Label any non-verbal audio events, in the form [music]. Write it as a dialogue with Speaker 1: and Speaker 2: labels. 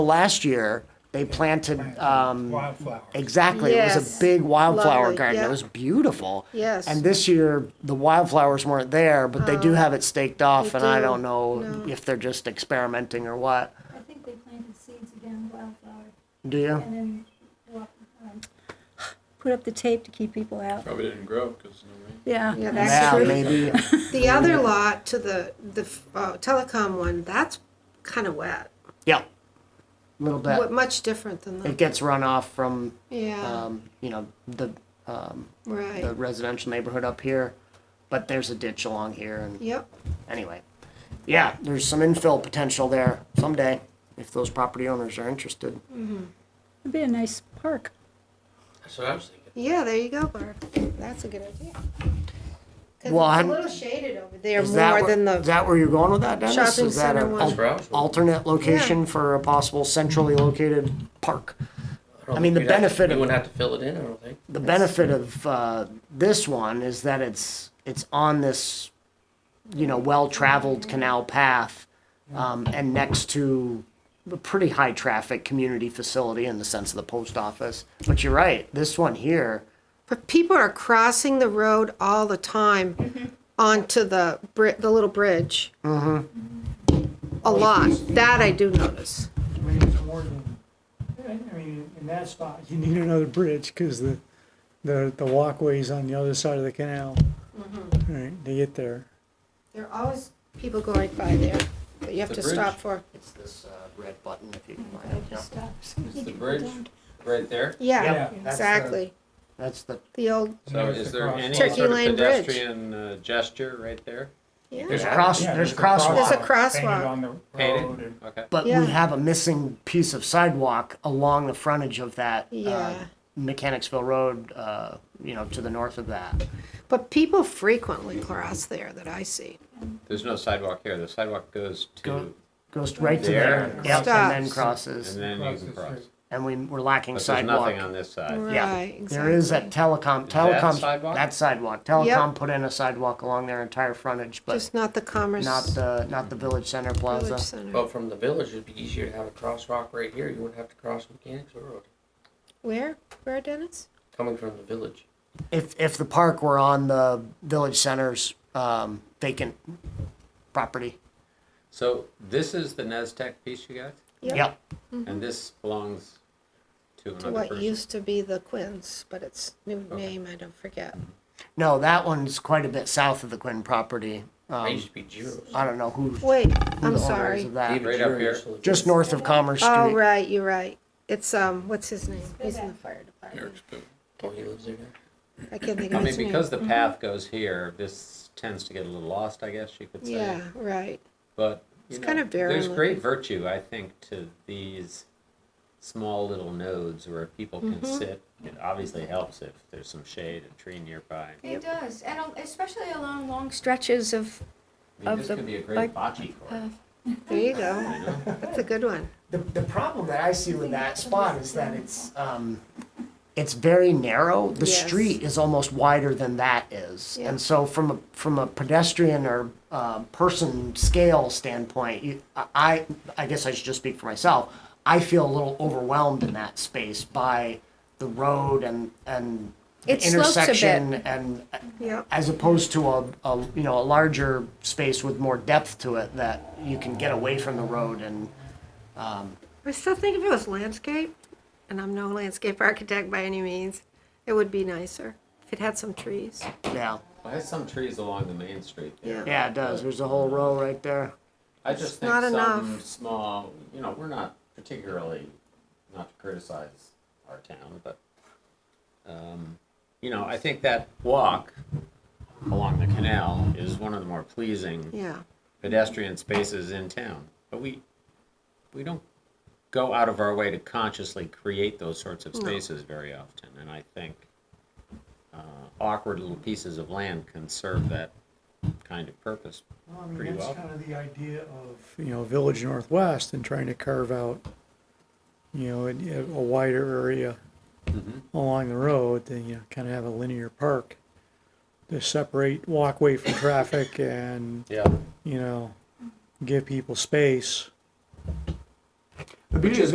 Speaker 1: Last year, they planted, um,
Speaker 2: Wildflower.
Speaker 1: exactly, it was
Speaker 3: Yes.
Speaker 1: a big wildflower
Speaker 3: Lovely,
Speaker 1: garden.
Speaker 3: yeah.
Speaker 1: It was beautiful.
Speaker 3: Yes. Uh,
Speaker 1: And this year, the wildflowers weren't there, but they do have it staked off
Speaker 3: they
Speaker 1: and I
Speaker 3: do,
Speaker 1: don't know
Speaker 3: no.
Speaker 1: if they're just experimenting or what.
Speaker 4: I think they planted seeds again, wildflower,
Speaker 1: Do you?
Speaker 4: and then walk, um, put up the tape to keep people out.
Speaker 5: Probably didn't grow because no rain.
Speaker 4: Yeah.
Speaker 3: Yeah,
Speaker 1: Yeah,
Speaker 3: that's true. [laughs]
Speaker 1: maybe.
Speaker 3: The other lot to the, the uh, telecom one, that's kind of wet.
Speaker 1: Yeah. Little bit.
Speaker 3: What, much different than
Speaker 1: It
Speaker 3: the,
Speaker 1: gets run off from,
Speaker 3: yeah,
Speaker 1: um, you know, the, um, the
Speaker 3: right.
Speaker 1: residential neighborhood up here, but there's a ditch along here and
Speaker 3: Yep,
Speaker 1: anyway. Yeah, there's some infill potential there someday if those property owners are interested.
Speaker 4: It'd be a nice park.
Speaker 5: That's what I was thinking.
Speaker 3: yeah, there you go, Barb. That's a good idea. 'Cause
Speaker 1: Well,
Speaker 3: it's
Speaker 1: I'm-
Speaker 3: a little shaded over there
Speaker 1: Is that
Speaker 3: more
Speaker 1: where-
Speaker 3: than
Speaker 1: Is
Speaker 3: the,
Speaker 1: that where you're going with that, Dennis?
Speaker 3: Shopping
Speaker 1: Is that
Speaker 3: center
Speaker 1: an
Speaker 3: one.
Speaker 1: al-
Speaker 5: That's where I was going.
Speaker 1: alternate location for a possible centrally located park?
Speaker 5: don't
Speaker 1: I mean,
Speaker 5: think
Speaker 1: the
Speaker 5: we'd have to-
Speaker 1: benefit
Speaker 5: We
Speaker 1: of-
Speaker 5: wouldn't have to fill it in, I don't think.
Speaker 1: The benefit of uh, this one is that it's it's on this, you know, well-traveled canal path, um, and next to a pretty high-traffic community facility in the sense of the post office. But you're right, this one here,
Speaker 3: but people are crossing the road all the
Speaker 1: Mm-hmm.
Speaker 3: time onto the bri, the little bridge. A lot. That I do notice.
Speaker 2: I mean, it's more than- I mean, in that spot, you need another bridge, cause the, the, the walkway's on the other side of the canal.
Speaker 3: Mm-hmm.
Speaker 2: Right, to get there.
Speaker 3: There are always people going by there that you have
Speaker 5: The
Speaker 3: to
Speaker 5: bridge.
Speaker 3: stop for.
Speaker 1: it's this uh, red button if you can find it.
Speaker 4: It
Speaker 1: Yeah.
Speaker 4: just stops.
Speaker 5: It's the bridge right there.
Speaker 3: Yeah,
Speaker 2: that's the-
Speaker 3: exactly.
Speaker 1: That's the
Speaker 3: The old,
Speaker 5: So
Speaker 2: There's
Speaker 5: is
Speaker 2: the
Speaker 5: there
Speaker 2: crosswalk.
Speaker 5: any
Speaker 3: Turkey
Speaker 5: sort of
Speaker 3: Lane Bridge.
Speaker 5: pedestrian uh, gesture right there?
Speaker 3: yeah.
Speaker 1: there's
Speaker 5: Yeah.
Speaker 1: cross
Speaker 2: Yeah,
Speaker 1: there's, crosswalk.
Speaker 3: There's a
Speaker 2: painted
Speaker 3: crosswalk.
Speaker 2: on the
Speaker 5: Painted?
Speaker 2: road and-
Speaker 5: Okay.
Speaker 1: But
Speaker 3: Yeah.
Speaker 1: we have a missing piece of sidewalk along the frontage of that uh,
Speaker 3: Yeah.
Speaker 1: Mechanicsville Road, uh, you know, to the north of that.
Speaker 3: But people frequently cross there that I see.
Speaker 5: There's no sidewalk here. The sidewalk goes to,
Speaker 1: Go- Goes right to
Speaker 5: There.
Speaker 1: there, yep, and then
Speaker 3: Stops.
Speaker 5: and
Speaker 1: crosses,
Speaker 5: then you
Speaker 2: Across
Speaker 5: can
Speaker 2: the
Speaker 5: cross.
Speaker 2: street.
Speaker 1: and we, we're lacking
Speaker 5: But there's nothing
Speaker 1: sidewalk.
Speaker 5: on this side.
Speaker 1: Yeah.
Speaker 3: Right, exactly.
Speaker 1: There is that telecom,
Speaker 5: Is that
Speaker 1: telecom,
Speaker 5: sidewalk?
Speaker 1: that sidewalk, telecom put in a sidewalk along their entire frontage, but
Speaker 3: Just not the Commerce
Speaker 1: not the, not the Village Center Plaza.
Speaker 3: Village Center.
Speaker 5: Oh.
Speaker 6: But from the village, it'd be easier to have a crosswalk right here. You wouldn't have to cross Mechanics Road.
Speaker 3: Where, where, Dennis?
Speaker 6: Coming from the village,
Speaker 1: If, if the park were on the Village Center's, um, vacant property,
Speaker 5: So this is the E NESTEC piece you got?
Speaker 3: Yep.
Speaker 1: yep,
Speaker 5: And this belongs to
Speaker 3: To
Speaker 5: another
Speaker 3: what
Speaker 5: person?
Speaker 3: used to be the Quins, but it's new name, I don't forget.
Speaker 1: No, that one's quite a bit south of the Quinn property.
Speaker 6: I
Speaker 1: Um,
Speaker 6: used to be Giro's.
Speaker 1: I don't know who, who
Speaker 3: Wait,
Speaker 1: the
Speaker 3: I'm
Speaker 1: owners
Speaker 3: sorry.
Speaker 1: of that.
Speaker 6: David
Speaker 5: Right up
Speaker 6: Giroux
Speaker 5: here.
Speaker 6: used to live
Speaker 1: Just
Speaker 6: there.
Speaker 1: north of Commerce Street.
Speaker 3: Oh, right, you're right. It's, um, what's his name? He's in the fire department.
Speaker 6: Oh, he lives there. now.
Speaker 3: I can't think
Speaker 5: I
Speaker 3: of
Speaker 5: mean,
Speaker 3: his name.
Speaker 5: because the path goes here, this tends to get a little lost, I guess you could say.
Speaker 3: Yeah, right.
Speaker 5: But you
Speaker 3: It's
Speaker 5: know,
Speaker 3: kind of barren
Speaker 5: there's great
Speaker 3: looking.
Speaker 5: virtue, I think, to these small little nodes where people can
Speaker 7: Mm-hmm.
Speaker 5: sit. It obviously helps if there's some shade and tree nearby. I
Speaker 7: It does, and al- especially along long stretches of,
Speaker 5: mean,
Speaker 7: Of
Speaker 5: this
Speaker 7: the-
Speaker 5: could be a great
Speaker 7: like,
Speaker 5: bocce court.
Speaker 7: uh,
Speaker 3: There you go. That's a good one.
Speaker 1: The, the problem that I see with that spot is that it's, um, it's very narrow. The
Speaker 3: Yes.
Speaker 1: street is almost wider than that is.
Speaker 3: Yeah.
Speaker 1: And so from a, from a pedestrian or, um, person scale standpoint, you, I, I guess I should just speak for myself. I feel a little overwhelmed in that space by the road and, and the
Speaker 7: It slopes a bit.
Speaker 1: intersection and
Speaker 3: Yep.
Speaker 1: as opposed to a, a you know a larger space with more depth to it that you can get away from the road and
Speaker 3: I still think if it was landscape, and I'm no landscape [laughs] architect by any means, it would be nicer if it had some trees.
Speaker 1: yeah
Speaker 5: Well, there's some trees along the main street there.
Speaker 3: Yeah.
Speaker 1: yeah it does there's a whole row right there
Speaker 5: I just think
Speaker 3: not
Speaker 5: some
Speaker 3: enough.
Speaker 5: small, you know, we're not particularly, not to criticize our town, but, um, you know, I think that walk along the canal is one of the more pleasing
Speaker 3: Yeah.
Speaker 5: pedestrian spaces in town. But we, we don't go out of our way to consciously create those sorts of spaces very often. And I think uh, awkward little pieces of land can serve that kind of purpose
Speaker 2: Well, I mean,
Speaker 5: pretty well.
Speaker 2: That's kind of the idea of, you know, Village Northwest and trying to carve out, you know, a, a wider area
Speaker 5: Mm-hmm.
Speaker 2: along the road, then, you know, kind of have a linear park to separate walkway from traffic and,
Speaker 5: Yeah.
Speaker 2: you know, give people space.
Speaker 1: the beauty